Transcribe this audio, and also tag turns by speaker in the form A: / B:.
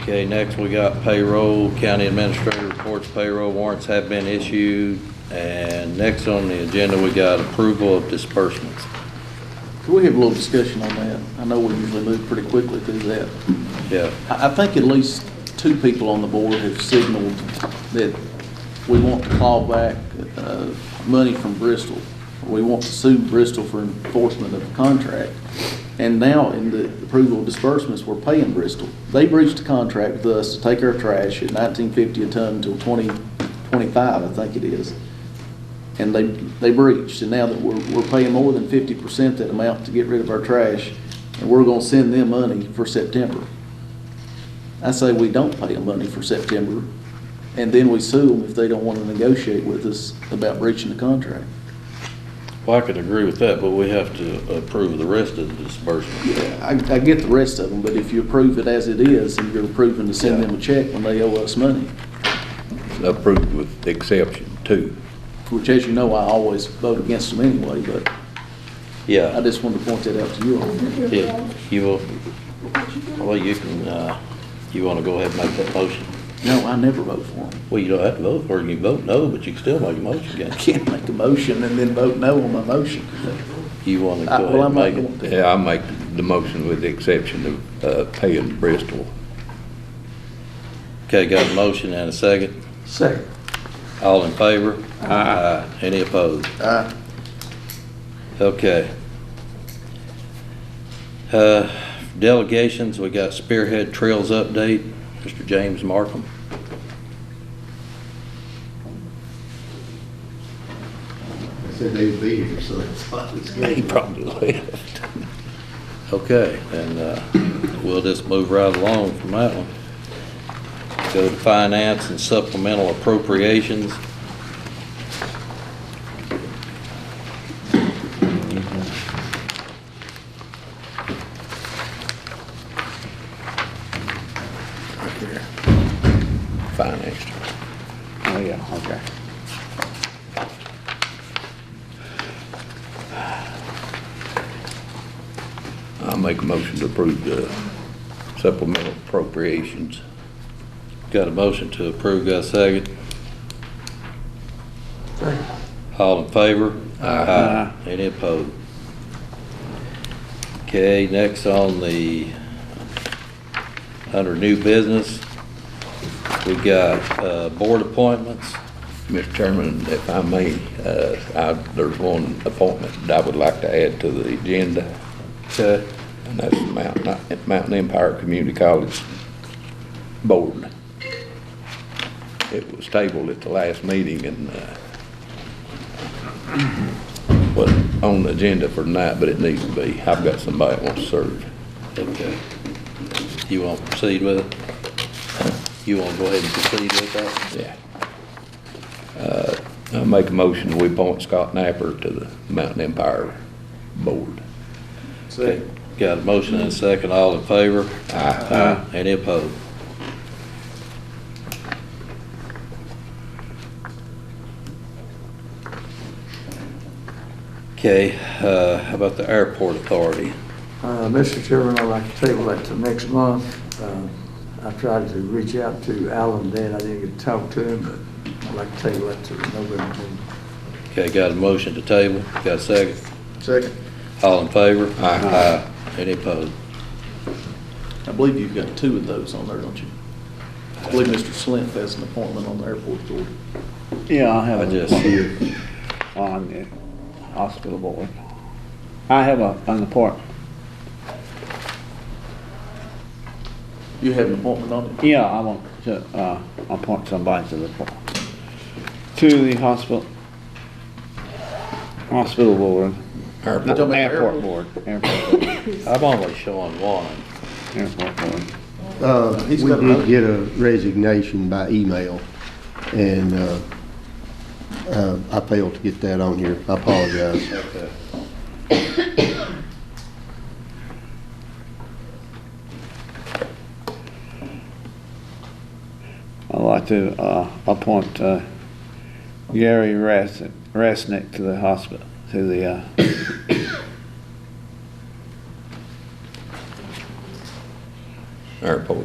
A: Okay, next we got payroll, county administrator reports payroll warrants have been issued. And next on the agenda, we got approval of disbursements.
B: Can we have a little discussion on that? I know we usually move pretty quickly through that.
A: Yeah,
B: I, I think at least two people on the board have signaled that we want to call back, uh, money from Bristol. We want to sue Bristol for enforcement of the contract. And now in the approval of disbursements, we're paying Bristol. They breached a contract with us to take our trash at nineteen fifty a ton until twenty twenty-five, I think it is. And they, they breached, and now that we're, we're paying more than fifty percent that amount to get rid of our trash, and we're gonna send them money for September. I say we don't pay them money for September, and then we sue them if they don't want to negotiate with us about breaching the contract.
A: well, I could agree with that, but we have to approve the rest of the disbursement.
B: Yeah, I, I get the rest of them, but if you approve it as it is, and you're approving to send them a check when they owe us money,
C: approved with the exception two.
B: which as you know, I always vote against them anyway, but I
A: Yeah,
B: just wanted to point that out to you all.
A: yeah, you will, well, you can, uh, you wanna go ahead and make that motion?
B: No, I never vote for them.
A: Well, you don't have to vote, or you can vote no, but you can still make a motion,
B: I
A: can't
B: can't make a motion and then vote no on my motion.
A: you? You wanna
B: I-
A: go
B: Uh,
A: ahead
B: Well,
A: and
B: I'm not
A: make it?
B: going to.
C: Yeah, I make the motion with the exception of uh, paying Bristol.
A: Okay, got a motion and a second.
B: Second.
A: All in favor? Aye. Any opposed?
B: Aye.
A: Okay. Uh, Delegations, we got Spearhead Trails update, Mr. James Markham.
D: I said they'd be here, so that's why it's
C: He
D: good.
C: probably left.
A: Okay, then uh, we'll just move right along from that one. Go to finance and supplemental appropriations.
C: Financed. Oh, yeah, okay. I make a motion to approve the supplemental appropriations.
A: Got a motion to approve, got a second? All in favor? Aye. Any opposed? Okay, next on the, under new business, we got uh, board appointments.
C: Mr. Chairman, if I may, uh, I, there's one appointment that I would like to add to the agenda,
A: Okay.
C: and that's the Mountain, Mountain Empire Community College Board. It was tabled at the last meeting and, uh, was on the agenda for tonight, but it needs to be. I've got somebody that wants to serve.
A: Okay. You want to proceed with it? You want to go ahead and proceed with that?
C: Yeah. Uh, I make a motion, we appoint Scott Napper to the Mountain Empire Board.
A: Okay. Got a motion and a second, all in favor? Aye. Any opposed? Okay, uh, how about the airport authority?
E: Uh, Mr. Chairman, I'd like to table that till next month. Uh, I tried to reach out to Alan then, I didn't get to talk to him, but I'd like to table that till November. meeting.
A: Okay, got a motion to table, got a second,
B: Second.
A: all in favor? Aye. Any opposed?
B: I believe you've got two of those on there, don't you? I believe Mr. Slint has an appointment on the airport board.
F: Yeah, I
A: I
F: have
A: just-
F: a few on the hospital board. I have a, on the port,
B: You have an appointment on it?
F: yeah, I want to, uh, appoint somebody to the port. To the hospital, hospital board.
C: Airport.
F: No,
B: talking about
F: Airport
B: airport?
F: board, airport, board,
A: I'm only showing one.
F: airport board.
D: Uh, we
B: He's got another-
D: did get a resignation by email, and, uh, uh, I failed to get that on here. I apologize.
A: Okay.
F: I'd like to, uh, appoint, uh, Gary Resnick, Resnick to the hospital, to the, uh,
C: Airport.